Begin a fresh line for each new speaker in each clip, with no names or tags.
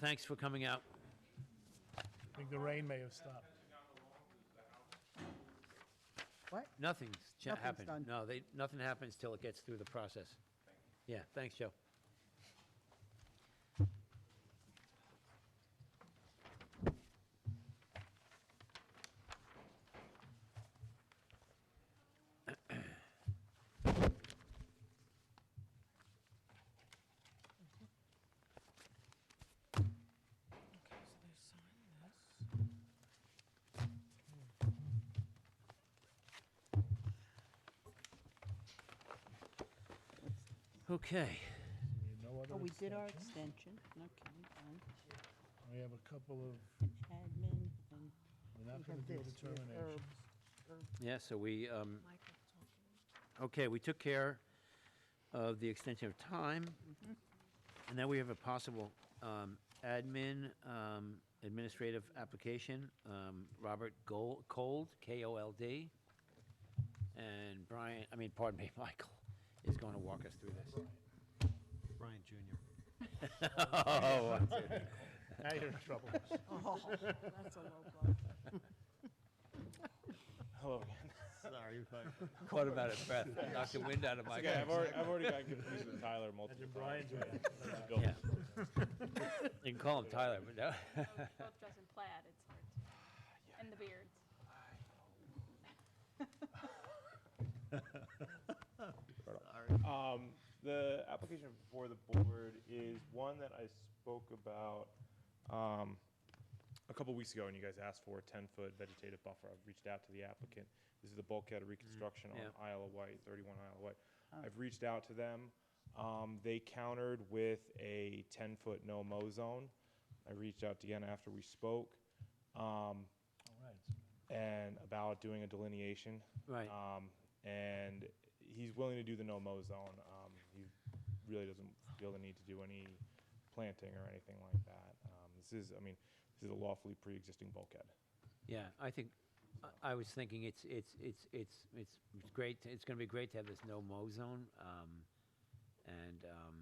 Thanks for coming out.
I think the rain may have stopped.
What?
Nothing's cha-
Nothing's
happened.
done.
No, they, nothing happens till it gets through the process. Yeah, thanks, Joe. Okay.
No
Oh,
other
we did our
extensions?
extension, okay, done,
We have a couple of,
and admin, and
we're
we
not going
have
to do
this, we have
determinations.
herbs.
Yeah, so we, um, okay, we took care of the extension of time. And now we have a possible um, admin, um, administrative application, um, Robert Gold, Cold, K-O-L-D. And Brian, I mean, pardon me, Michael, is going to walk us through this.
Brian Jr.
Oh,
Now you're in trouble.
Oh, that's a low blow.
Hello again.
Sorry.
Caught him out of breath, knocked the wind out of my
Okay, I've already, I've already gotten confused with Tyler multiple
Imagine
times.
Brian's ready.
Go.
Yeah. You can call him Tyler, but no.
both dress in plaid, it's hard to. And the beards.
Um, the application before the board is one that I spoke about, um, a couple weeks ago, and you guys asked for a ten-foot vegetative buffer. I've reached out to the applicant. This is the bulkhead reconstruction
yeah.
on Isle of Wight, thirty-one Isle of Wight. I've reached out to them. Um, they countered with a ten-foot no-mow zone. I reached out again after we spoke. Um, and about doing a delineation.
Right.
Um, and he's willing to do the no-mow zone. Um, he really doesn't feel the need to do any planting or anything like that. Um, this is, I mean, this is a lawfully pre-existing bulkhead.
Yeah, I think, I- I was thinking it's, it's, it's, it's, it's it's great, to- it's gonna be great to have this no mow zone. um, And um,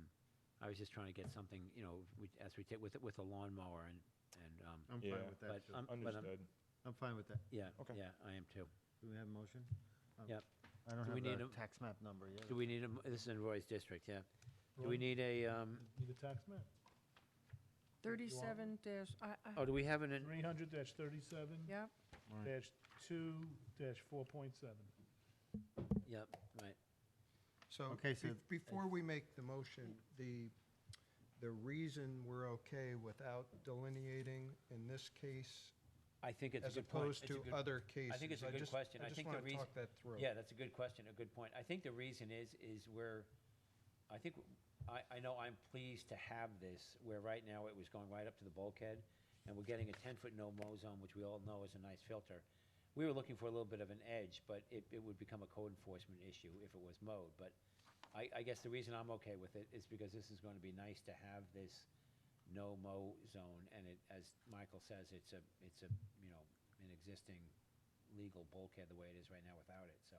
I was just trying to get something, you know, we- as we take, with, with a lawnmower and, and, um,
I'm
Yeah.
fine with
but
that, too.
I'm, but um, I'm,
Understood.
I'm fine with that.
yeah,
Okay.
yeah, I am too.
Do we have a motion? Um,
Yep.
I don't
Do we
have
need
a
a-
tax map number yet.
Do we need a, m- this is in Roy's district, yeah. Do we
Roy?
need a, um,
Need a tax map?
Thirty-seven dash, I, I,
oh, do we have an, an-
Three hundred dash thirty-seven
yep,
dash two dash four point seven.
yep, right,
So
Okay, so-
be- before we make the motion, the, the reason we're okay without delineating in as opposed to
I think it's
other cases.
a
As
good point.
opposed
It's a
to
good-
other cases.
I think it's a good
just-
question. I
just
think the
wanna
reason-
talk that through.
Yeah, that's a good question, a good point. I think the reason is, is we're, I think, I, I know I'm pleased to have this, where right now it was going right up to the bulkhead, and we're getting a ten-foot no-mow zone, which we all know is a nice filter. We were looking for a little bit of an edge, but it, it would become a code enforcement issue if it was mowed, but I, I guess the reason I'm okay with it is because this is gonna be nice to have this no-mow zone, and it, as Michael says, it's a, it's a, you know, an existing legal bulkhead the way it is right now without it, so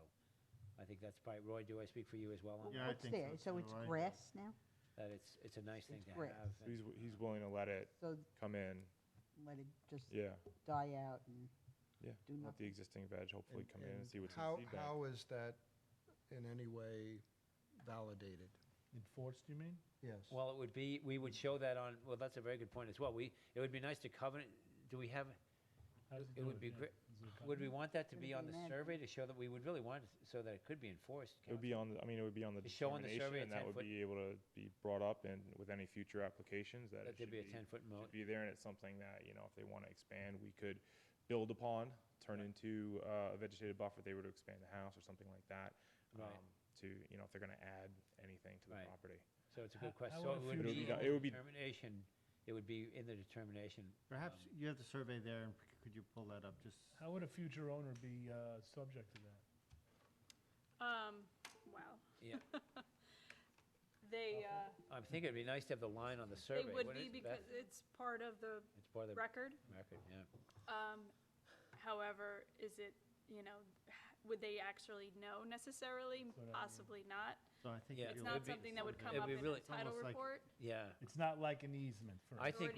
I think that's probably, Roy, do I speak for you as well on
Yeah, I
that?
What's
think so
there, so
too,
it's
I-
grass now,
That it's, it's a nice thing to
It's great.
have.
So He's, he's willing to let it
so
come in.
let it just
Yeah,
die out and
yeah.
do
Let the
nothing.
existing veg hopefully
And-
come in and
and
see what's in the
How,
seed bank.
how is that in any way validated?
Enforced, you mean?
Yes.
Well, it would be, we would show that on, well, that's a very good point as well. We, it would be nice to covenant, do we have,
How does he
It
do
would be
Dan?
great-
Is there a
would we
copy?
want that to
Would
be
it
on
be
the
an ad?
survey to show that, we would really want, it so that it could be enforced,
It
counsel.
would be on, the I mean, it would be on the
It's showing the survey
determination,
a
and
10
that would
foot-
be able to be brought up in, with any future applications, that
that
it should
there'd be a
be,
ten-foot mow.
should be there, and it's something that, you know, if they want to expand, we could build upon, turn into uh, a vegetated buffer, if they were to expand the house or something like that.
Right.
um, To, you know, if they're going to add anything to the
Right.
property.
So it's a
How-
good question.
how
So
would
it would
a
future-
be
It would
in the
be-
determination, it would be in the determination.
Perhaps
um,
you have the survey there, and c- could you pull that up, just?
How would a future owner be uh, subject to that?
Um, wow.
Yeah,
They, uh,
I think it'd be nice to have the line on the survey.
they would
wouldn't
be
it, Beth?
because it's part of the
It's part of the
record.
record, yeah.
Um, however, is it, you know, would they actually know necessarily?
That's what I mean.
Possibly not.
So I think.
Yeah,
it
It's
would
not
be-
something that would
survey.
It'd
come up
be
in a
really-
title
almost like-
report.
Yeah,
It's not like an easement for.
I
Or
think,
an